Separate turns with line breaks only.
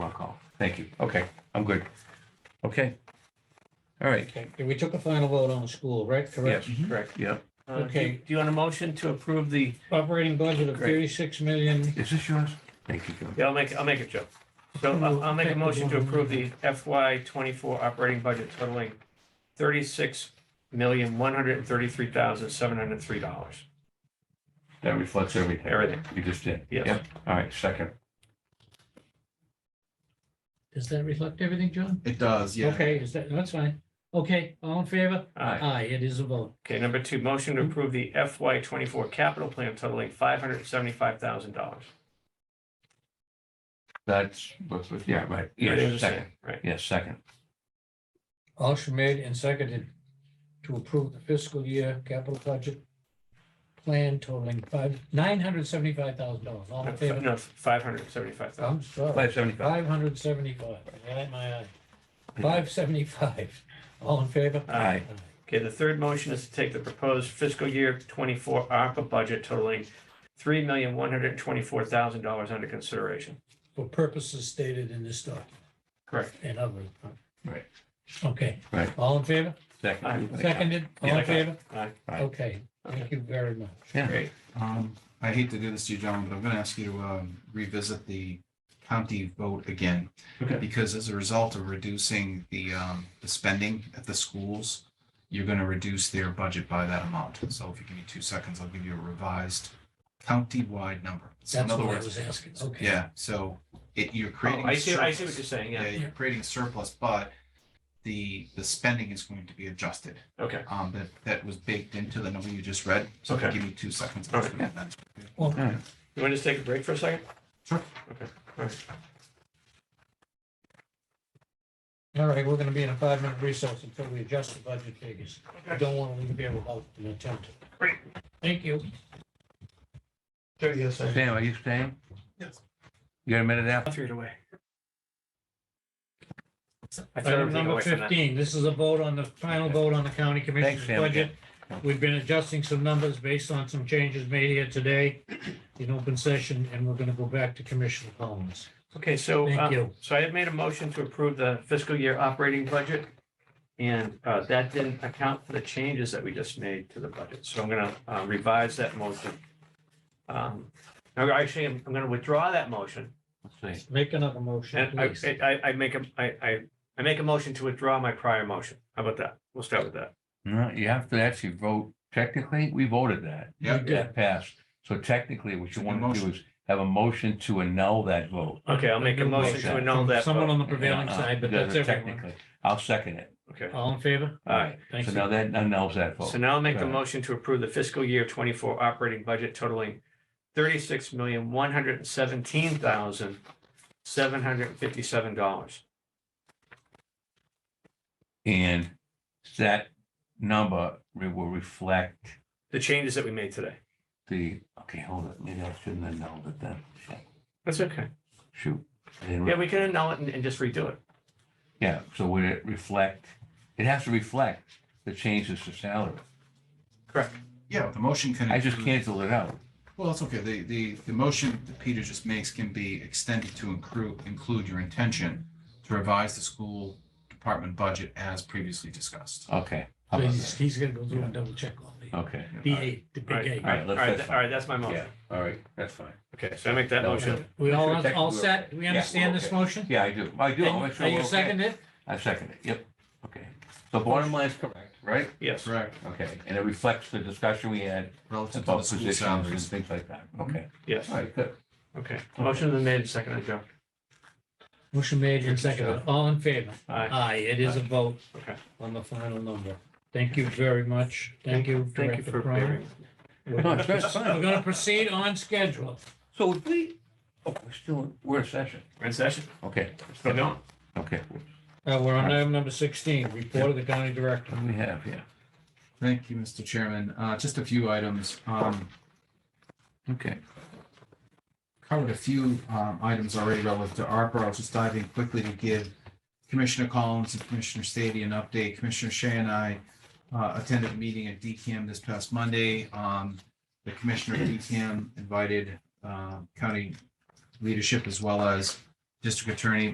Thank you. Okay, I'm good. Okay. All right,
Okay, we took a final vote on the school, right? Correct.
Correct.
yeah.
Uh, do-
Okay.
Do you want a motion to approve the,
Operating budget of
Great.
thirty-six million.
Is this yours? Thank you, John.
yeah, I'll make, I'll make it, Joe. So uh, I'll, I'll make a motion to approve the FY twenty-four operating budget totaling thirty-six million, one hundred and thirty-three thousand, seven hundred and three dollars.
That reflects everything
Everything.
you just did.
Yes.
Yep. All right, second.
Does that reflect everything, John?
It does, yeah.
Okay, is that, that's fine. Okay, all in favor?
Aye.
Aye, it is a vote.
Okay, number two, motion to approve the FY twenty-four capital plan totaling five hundred and seventy-five thousand dollars.
That's, what's with- yeah, right. Yes, second.
Right.
Yes, second.
Motion made and seconded to approve the fiscal year capital budget plan totaling five, nine hundred seventy-five thousand dollars. All in favor?
No, five hundred and seventy-five thousand.
I'm sorry.
Five seventy-five.
Five hundred seventy-five. Five seventy-five. All in favor?
Aye.
Okay, the third motion is to take the proposed fiscal year twenty-four ARPA budget totaling three million, one hundred and twenty-four thousand dollars under consideration.
For purposes stated in this document
Correct.
and others.
Right.
Okay.
Right.
All in favor?
Second.
Seconded, all in
Yeah.
favor?
Aye.
Aye.
Okay, thank you very much.
Yeah.
Great.
Um, I hate to do this to you, gentlemen, but I'm gonna ask you to um, revisit the county vote again.
Okay.
Because as a result of reducing the, um, the spending at the schools, you're gonna reduce their budget by that amount. So if you give me two seconds, I'll give you a revised county-wide number. So in
That's
other
what I
words,
was asking, okay.
yeah, so it, you're
Oh,
creating.
I
a
see, I see
surplus.
what you're saying,
Yeah,
yeah,
you're creating a surplus, but the, the spending is going to be adjusted
okay.
um, that, that was baked into the number you just read. So if you
Okay.
give me two seconds.
All right.
I'll-
Well,
All right.
You want to just take a break for a second?
Sure.
Okay, all right.
all right, we're gonna be in a five-minute recess until we adjust the budget figures. I don't want to leave here without an attempt.
Great.
Thank you.
There you go, sir.
Sam, are you staying?
Yes.
You got a minute
I
after?
threw it away. I threw
Item
everything
number
away from that.
fifteen, this is a vote on the, final vote on the county
Thanks,
commission's
Sam,
budget.
yeah.
We've been adjusting some numbers based on some changes made here today in open session, and we're gonna go back to Commissioner Collins.
Okay, so,
Thank
um,
you.
so I had made a motion to approve the fiscal year operating budget. And, uh, that didn't account for the changes that we just made to the budget. So I'm gonna uh, revise that motion. Um, no, actually, I'm, I'm gonna withdraw that motion.
Let's see.
Make another motion,
And uh, I,
please.
I, I- I make a, I, I, I make a motion to withdraw my prior motion. How about that? We'll start with that.
No, you have to actually vote. Technically, we voted that.
Yeah.
You did.
That passed. So technically, what you
Good
want to do
motion.
is have a motion to annul that vote.
Okay, I'll make a
New
motion to annul
From
that.
Someone
vote.
on the prevailing
Yeah, uh,
side, but
yeah,
that's everyone.
Technically, I'll second it.
Okay.
All in favor?
All right.
Thank
So
you.
now that annuls that
So
vote.
now I'll make the
Right.
motion to approve the fiscal year twenty-four operating budget totaling thirty-six million, one hundred and seventeen thousand, seven hundred and fifty-seven dollars.
And that number re- will reflect
The changes that we made today.
the, okay, hold it, maybe I shouldn't have annulled it then.
That's okay.
Shoot. I didn't
Yeah,
re-
we can annul it and, and just redo it.
Yeah, so would it reflect, it has to reflect the changes to salary.
Correct.
Yeah, the motion can.
I just
include-
canceled it out.
Well, that's okay. The, the, the motion that Peter just makes can be extended to include, include your intention to revise the school department budget as previously discussed.
Okay. how about
He's,
that?
he's gonna go through and double check all the,
Okay,
the eight, the
All
big
right,
eight.
all right, all
let's-
right,
that's
all right, that's my
yeah,
motion.
all right, that's fine.
Okay, so I make that
That was
motion.
We
Make
all,
sure
all
technically we're
set?
okay.
We
Yeah,
understand
we're
this
okay.
motion?
Yeah, I do, I do. I'll make
And
sure
Are
we're
you
okay.
seconded? it?
I second it, yep, okay. So bottom line is correct, right?
Yes.
Correct.
Okay, and it reflects the discussion we had
Relative to the
about
school
positions and
salaries. Mm-hmm.
things like that. Okay,
Yes.
all right, good.
Okay. Motion is made, seconded, Joe.
Motion made and seconded. All in favor?
Aye.
Aye, it is a vote
Okay.
on the final number. Thank you very much. Thank you,
Thank you
Director
for
Cronin.
bearing.
No, it's very fine.
We're gonna proceed on schedule.
So if we, oh, we're still, we're in session.
We're in session.
Okay,
Still going?
okay.
Uh, we're on item number sixteen, report of the county director.
What do we have here?
Thank you, Mr. Chairman. Uh, just a few items. Um,
Okay,
covered a few um, items already relative to ARPA. I'll just dive in quickly to give Commissioner Collins and Commissioner Stady an update. Commissioner Shea and I uh, attended a meeting at DCAM this past Monday. Um, The Commissioner of DCAM invited uh, county leadership as well as District Attorney